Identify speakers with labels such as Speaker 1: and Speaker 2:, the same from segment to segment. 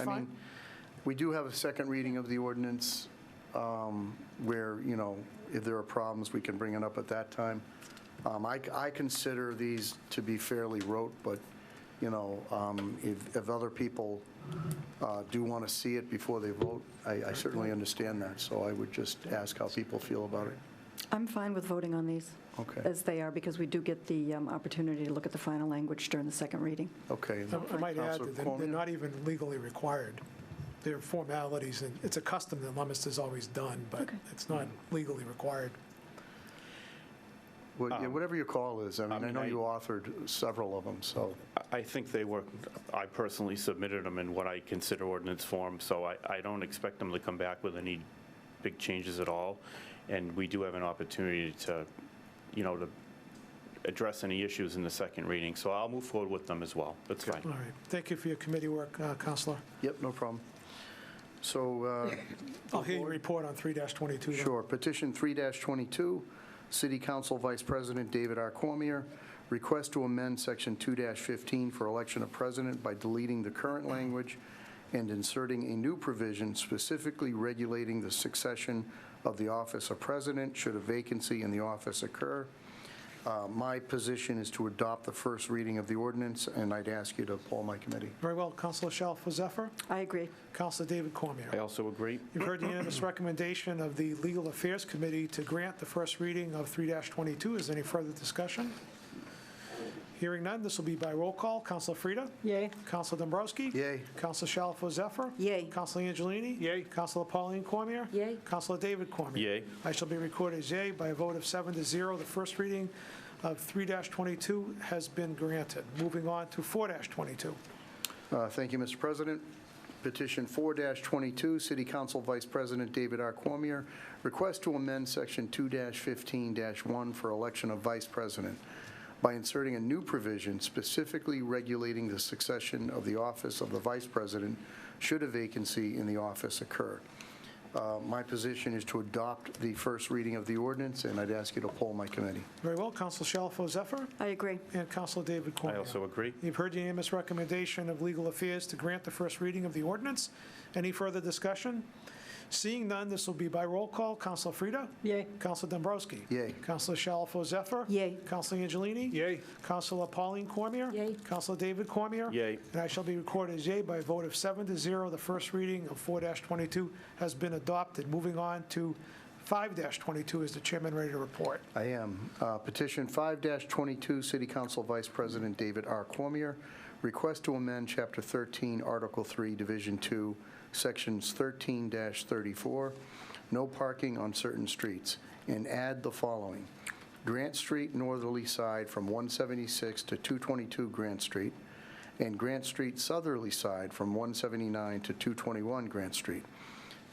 Speaker 1: I mean, we do have a second reading of the ordinance um, where, you know, if there are problems, we can bring it up at that time. Um, I I consider these to be fairly rote, but, you know, um, if if other people uh, do want to see it before they vote, I I certainly understand that, so I would just ask how people feel about it.
Speaker 2: I'm fine with voting on these.
Speaker 1: Okay.
Speaker 2: As they are, because we do get the um, opportunity to look at the final language during the second reading.
Speaker 1: Okay.
Speaker 3: I might add
Speaker 1: Counselor
Speaker 3: that they're-
Speaker 1: Cuomo?
Speaker 3: they're not even legally required. They're formalities, and it's a custom that Leominster's always done, but it's not legally required.
Speaker 1: Well, yeah, Whatever your call is, I mean, I
Speaker 4: mean,
Speaker 1: know
Speaker 4: I-
Speaker 1: you authored several of them, so.
Speaker 4: I think they were, I personally submitted them in what I consider ordinance form, so I, I don't expect them to come back with any big changes at all. And we do have an opportunity to, you know, to address any issues in the second reading, so I'll move forward with them as well. That's
Speaker 3: All
Speaker 4: fine.
Speaker 3: right. Thank you for your committee work, uh, Counselor.
Speaker 1: Yep, no problem. So uh,
Speaker 3: I'll hear your report on 3-22. though.
Speaker 1: Sure. Petition 3-22, City Council Vice President David R. Cormier, request to amend Section 2-15 for election of president by deleting the current language and inserting a new provision specifically regulating the succession of the office of president should a vacancy in the office occur. Uh, My position is to adopt the first reading of the ordinance, and I'd ask you to poll my committee.
Speaker 3: Very well, Counselor Shalfo Zephyr,
Speaker 2: I agree.
Speaker 3: Counselor David
Speaker 4: I
Speaker 3: Cormier.
Speaker 4: also agree.
Speaker 3: You've heard the unanimous recommendation of the Legal Affairs Committee to grant the first reading of 3-22. Is there any further discussion? Hearing none, this will be by roll call. Counselor Frida?
Speaker 2: Yay.
Speaker 3: Counselor Dombrowski?
Speaker 1: Yay.
Speaker 3: Counselor Shalfo Zephyr?
Speaker 2: Yay.
Speaker 3: Counselor Angelini?
Speaker 4: Yay.
Speaker 3: Counselor Pauline Cormier?
Speaker 2: Yay.
Speaker 3: Counselor David Cormier?
Speaker 4: Yay.
Speaker 3: I shall be recorded as yay by a vote of seven to zero. The first reading of 3-22 has been granted. Moving on to 4-22.
Speaker 1: Uh, Thank you, Mr. President. Petition 4-22, City Council Vice President David R. Cormier, request to amend Section 2-15-1 for election of vice president by inserting a new provision specifically regulating the succession of the office of the vice president should a vacancy in the office occur. Uh, My position is to adopt the first reading of the ordinance, and I'd ask you to poll my committee.
Speaker 3: Very well, Counselor Shalfo Zephyr
Speaker 2: I agree.
Speaker 3: and Counselor David
Speaker 4: I
Speaker 3: Cormier.
Speaker 4: also agree.
Speaker 3: You've heard the unanimous recommendation of Legal Affairs to grant the first reading of the ordinance. Any further discussion? Seeing none, this will be by roll call. Counselor Frida?
Speaker 2: Yay.
Speaker 3: Counselor Dombrowski?
Speaker 1: Yay.
Speaker 3: Counselor Shalfo Zephyr?
Speaker 2: Yay.
Speaker 3: Counselor Angelini?
Speaker 4: Yay.
Speaker 3: Counselor Pauline Cormier?
Speaker 2: Yay.
Speaker 3: Counselor David Cormier?
Speaker 4: Yay.
Speaker 3: And I shall be recorded as yay by a vote of seven to zero. The first reading of 4-22 has been adopted. Moving on to 5-22, is the chairman ready to report?
Speaker 1: I am. Uh, Petition 5-22, City Council Vice President David R. Cormier, request to amend Chapter 13, Article 3, Division 2, Sections 13-34, no parking on certain streets, and add the following. Grant Street northerly side from 176 to 222 Grant Street, and Grant Street southerly side from 179 to 221 Grant Street.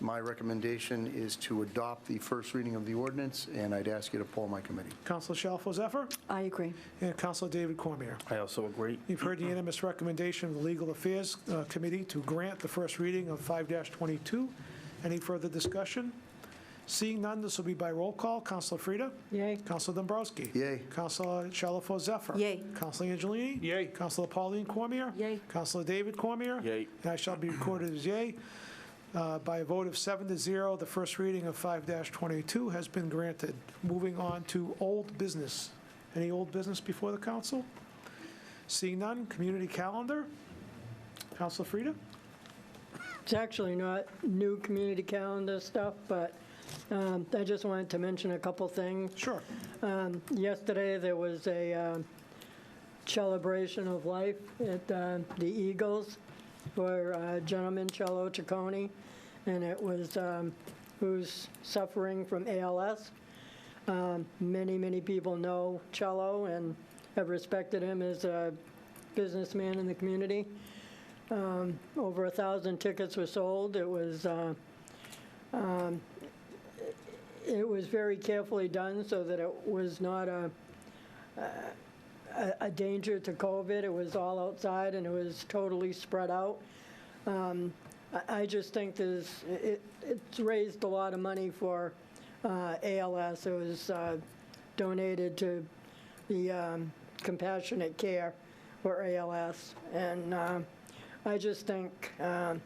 Speaker 1: My recommendation is to adopt the first reading of the ordinance, and I'd ask you to poll my committee.
Speaker 3: Counselor Shalfo Zephyr?
Speaker 2: I agree.
Speaker 3: And Counselor David Cormier?
Speaker 4: I also agree.
Speaker 3: You've heard the unanimous recommendation of the Legal Affairs uh, Committee to grant the first reading of 5-22. Any further discussion? Seeing none, this will be by roll call. Counselor Frida?
Speaker 2: Yay.
Speaker 3: Counselor Dombrowski?
Speaker 1: Yay.
Speaker 3: Counselor Shalfo Zephyr?
Speaker 2: Yay.
Speaker 3: Counselor Angelini?
Speaker 4: Yay.
Speaker 3: Counselor Pauline Cormier?
Speaker 2: Yay.
Speaker 3: Counselor David Cormier?
Speaker 4: Yay.
Speaker 3: And I shall be recorded as yay. Uh, By a vote of seven to zero, the first reading of 5-22 has been granted. Moving on to old business. Any old business before the council? Seeing none, community calendar. Counselor Frida?
Speaker 5: It's actually not new community calendar stuff, but um, I just wanted to mention a couple things.
Speaker 3: Sure.
Speaker 5: Um, Yesterday, there was a um, celebration of life at uh, the Eagles for uh, gentleman Cello Chaconi, and it was, um, who's suffering from ALS. Um, Many, many people know Cello and have respected him as a businessman in the community. Um, Over a 1,000 tickets were sold. It was uh, it was very carefully done so that it was not a, a, a danger to COVID. It was all outside and it was totally spread out. Um, I, I just think there's, it, it's raised a lot of money for uh, ALS. It was uh, donated to the um, Compassionate Care for ALS. And uh, I just think um,